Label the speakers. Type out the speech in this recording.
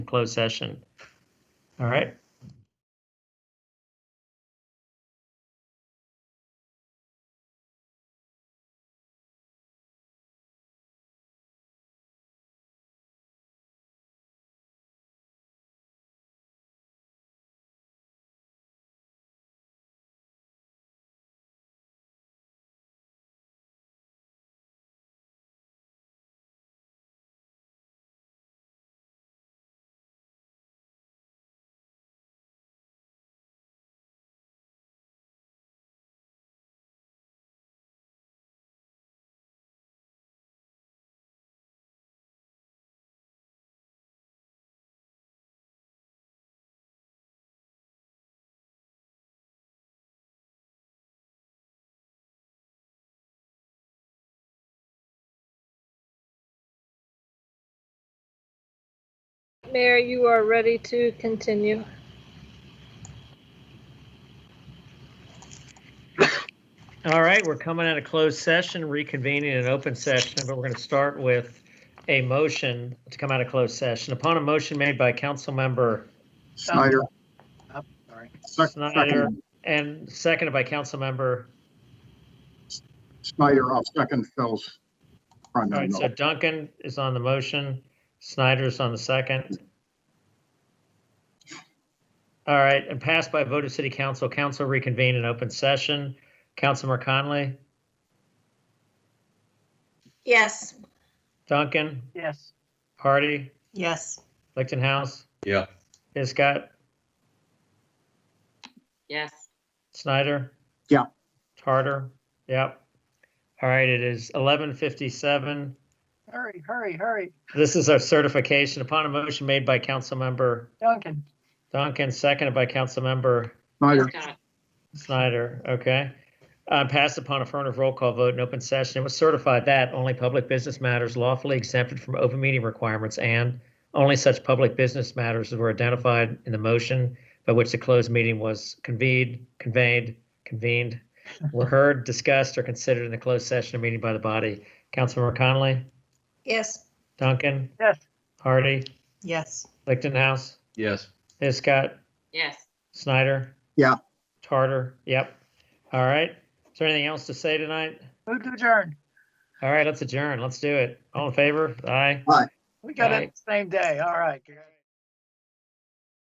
Speaker 1: closed session. All right.
Speaker 2: Mayor, you are ready to continue.
Speaker 1: All right, we're coming out of closed session, reconvening an open session, but we're going to start with a motion to come out of closed session. Upon a motion made by council member
Speaker 3: Snyder.
Speaker 4: Oh, sorry.
Speaker 3: Sec-
Speaker 1: Snyder
Speaker 3: second-
Speaker 1: and seconded by council member,
Speaker 3: Snyder, I'll second Phil's. All
Speaker 1: all right, so Duncan is on the motion, Snyder's on the second. All right, and passed by vote of city council, council reconvene in open session. Councilmember Conley,
Speaker 5: Yes.
Speaker 1: Duncan,
Speaker 4: Yes.
Speaker 1: Hardy,
Speaker 5: Yes.
Speaker 1: Lichtenhouse,
Speaker 6: Yeah.
Speaker 1: Hiscott,
Speaker 5: Yes.
Speaker 1: Snyder?
Speaker 3: Yeah.
Speaker 1: Tarter? Yep. All right, it is 11:57.
Speaker 4: Hurry, hurry, hurry.
Speaker 1: This is our certification upon a motion made by Councilmember
Speaker 4: Duncan.
Speaker 1: Duncan, seconded by Councilmember
Speaker 3: Snyder,
Speaker 1: Snyder, okay? Uh, Passed upon affirmative roll call vote in open session. It was certified that only public business matters lawfully exempted from open meeting requirements and only such public business matters as were identified in the motion by which the closed meeting was convened, conveyed, convened, were heard, discussed, or considered in the closed session or meeting by the body. Councilmember Connolly,
Speaker 5: Yes.
Speaker 1: Duncan,
Speaker 4: Yes.
Speaker 1: Hardy,
Speaker 5: Yes.
Speaker 1: Lichtenhouse,
Speaker 6: Yes.
Speaker 1: Hiscott,
Speaker 5: Yes.
Speaker 1: Snyder?
Speaker 3: Yeah.
Speaker 1: Tarter, yep. All right. Is there anything else to say tonight?
Speaker 4: Move to adjourn.
Speaker 1: All right, let's adjourn. Let's do it. All in favor? Aye.
Speaker 4: We got it the same day. All right.